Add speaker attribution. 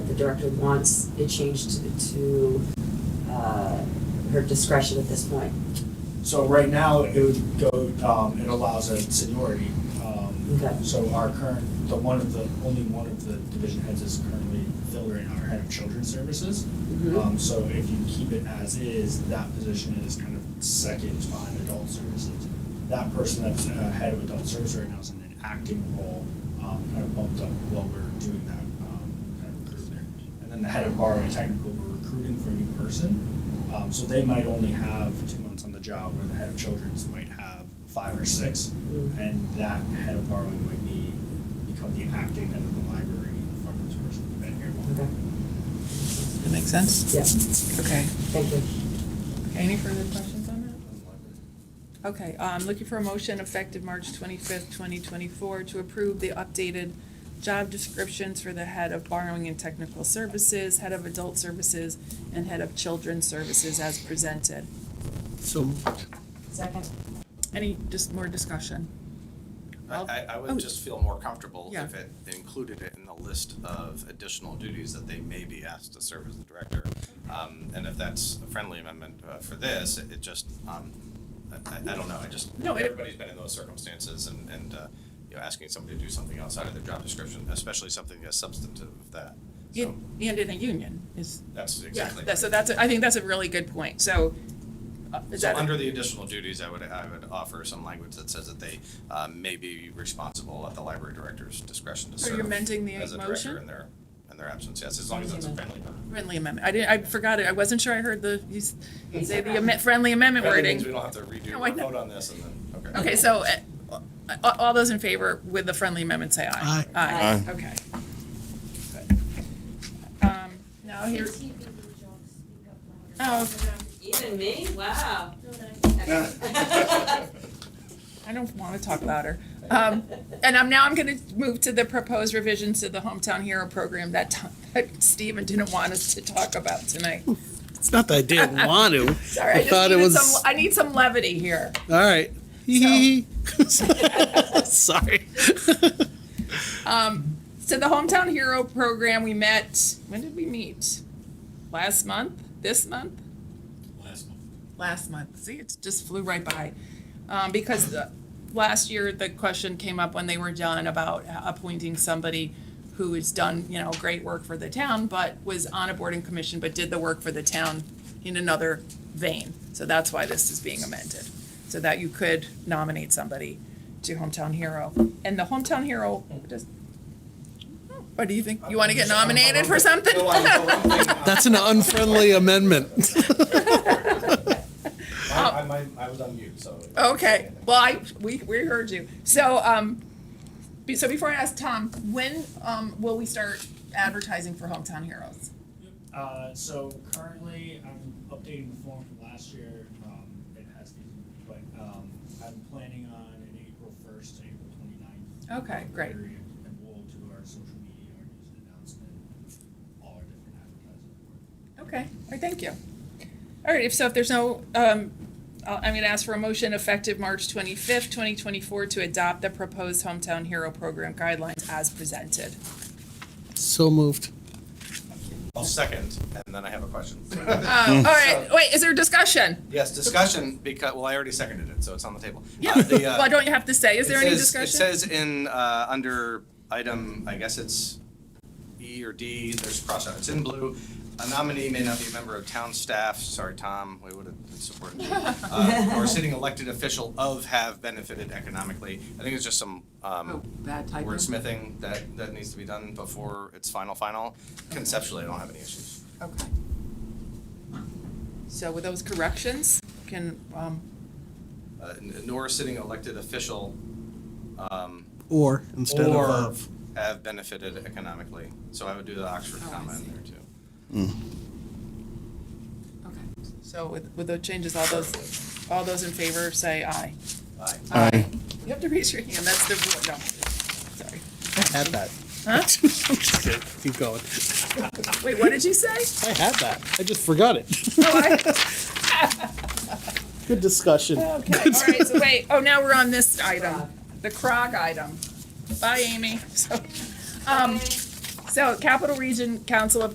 Speaker 1: director wants it changed to, to, uh, her discretion at this point.
Speaker 2: So right now, it would go, um, it allows a seniority. um,
Speaker 1: Okay.
Speaker 2: So our current, the one of the, only one of the division heads is currently Phil Rain, our head of children's services. Um, so if you keep it as is, that position is kind of second behind adult services. That person that's uh, head of adult service right now is in an acting role, um, kind of bumped up while we're doing that, um, kind of recruitment. And then the head of borrowing technical, we're recruiting for a new person. Um, so they might only have two months on the job, where the head of children's might have five or six.
Speaker 1: Mm.
Speaker 2: And that head of borrowing might be, become the acting head of the library from this person who's been here longer.
Speaker 1: Okay,
Speaker 3: That makes sense?
Speaker 1: yeah,
Speaker 3: Okay.
Speaker 1: thank you.
Speaker 3: Any further questions on that? Okay, uh, I'm looking for a motion effective March twenty-fifth, twenty twenty-four, to approve the updated job descriptions for the head of borrowing and technical services, head of adult services, and head of children's services as presented.
Speaker 4: So moved.
Speaker 1: Second.
Speaker 3: Any, just more discussion?
Speaker 5: I, I- I
Speaker 3: Oh.
Speaker 5: would just feel more comfortable
Speaker 3: Yeah.
Speaker 5: if it included it in the list of additional duties that they may be asked to serve as the director. Um, and if that's a friendly amendment uh, for this, it it just, um, I, I I don't know, I just,
Speaker 3: No, it-
Speaker 5: everybody's been in those circumstances and, and, uh, you know, asking somebody to do something outside of their job description, especially something as substantive as that. So
Speaker 3: And and in a union is,
Speaker 5: that's
Speaker 3: yeah,
Speaker 5: exactly.
Speaker 3: that- so that's, I think that's a really good point, so. uh, is
Speaker 5: So
Speaker 3: that-
Speaker 5: under the additional duties, I would, I would offer some language that says that they um, may be responsible at the library director's discretion to
Speaker 3: So
Speaker 5: serve.
Speaker 3: you're amending the
Speaker 5: As a
Speaker 3: motion?
Speaker 5: director in their, in their absence, yes, as long as it's a friendly amendment.
Speaker 3: Friendly amendment, I didn't, I forgot it, I wasn't sure I heard the, you s- say the amen- friendly amendment
Speaker 5: Friendly means
Speaker 3: wording.
Speaker 5: we don't have to redo,
Speaker 3: No, I
Speaker 5: or
Speaker 3: know.
Speaker 5: vote on this and then, okay.
Speaker 3: Okay, so, uh, all, all those in favor with the friendly amendment, say aye.
Speaker 4: Aye.
Speaker 3: Aye. okay. Good. Um, Now here, oh,
Speaker 1: Even me, wow.
Speaker 3: I don't want to talk louder. Um, and I'm, now I'm gonna move to the proposed revisions to the Hometown Hero program that, t- that Stephen didn't want us to talk about tonight.
Speaker 4: It's not that I didn't want to.
Speaker 3: Sorry, I just
Speaker 4: thought it
Speaker 3: needed
Speaker 4: was-
Speaker 3: some, I need some levity here.
Speaker 4: All right. Hee hee. Sorry.
Speaker 3: So the Hometown Hero program, we met, when did we meet? Last month? This month?
Speaker 2: Last month.
Speaker 3: last month. See, it just flew right by. Um, because the, last year, the question came up when they were done about appointing somebody who has done, you know, great work for the town, but was on a board and commission, but did the work for the town in another vein. So that's why this is being amended, so that you could nominate somebody to Hometown Hero. And the Hometown Hero, does, what do you think? You want to get nominated for something?
Speaker 2: No, I'm- no, I'm thinking-
Speaker 4: That's an unfriendly amendment.
Speaker 2: I, I, I was on mute, so.
Speaker 3: Okay, well, I, we, we heard you. So, um, be- so before I ask Tom, when, um, will we start advertising for Hometown Heroes?
Speaker 2: Uh, so currently, I'm updating the form from last year, um, it has been, but, um, I'm planning on an April first to April twenty-ninth.
Speaker 3: Okay, great.
Speaker 2: And we'll do our social media, our news and announcement, all our different advertising.
Speaker 3: Okay, all right, thank you. All right, if so, if there's no, um, I'll- I'm gonna ask for a motion effective March twenty-fifth, twenty twenty-four to adopt the proposed Hometown Hero Program guidelines as presented.
Speaker 4: So moved.
Speaker 5: I'll second, and then I have a question.
Speaker 3: Um, all right, wait, is there discussion?
Speaker 5: Yes, discussion, because, well, I already seconded it, so it's on the table.
Speaker 3: Yeah,
Speaker 5: Uh, the, uh,
Speaker 3: well, don't you have to say, is
Speaker 5: It
Speaker 3: there any
Speaker 5: says-
Speaker 3: discussion?
Speaker 5: It says in, uh, under item, I guess it's E or D, there's crossout, it's in blue. A nominee may not be a member of town staff, sorry, Tom, we would have supported you. Uh, Or sitting elected official of have benefited economically. I think it's just some, um,
Speaker 3: bad
Speaker 5: wordsmithing that, that needs to be done before it's final, final. Conceptually, I don't have any issues.
Speaker 3: Okay. So with those corrections, can, um,
Speaker 5: Uh, n- nor sitting elected official, um,
Speaker 4: Or instead
Speaker 5: or
Speaker 4: of uh, of.
Speaker 5: have benefited economically. So I would do the Oxford
Speaker 3: Oh, I
Speaker 5: comma
Speaker 3: see.
Speaker 5: in there too.
Speaker 3: okay, so with, with those changes, all those, all those in favor say aye.
Speaker 5: Aye.
Speaker 3: Aye. You have to raise your hand, that's the, rule. no, sorry.
Speaker 4: I had that.
Speaker 3: Huh?
Speaker 4: Just kidding. Keep going.
Speaker 3: Wait, what did you say?
Speaker 4: I had that. I just forgot it.
Speaker 3: Oh, I,
Speaker 4: Good discussion.
Speaker 3: okay, all right, so wait, oh, now we're on this item, the CROG item. Bye, Amy. So, um, so Capital Region Council of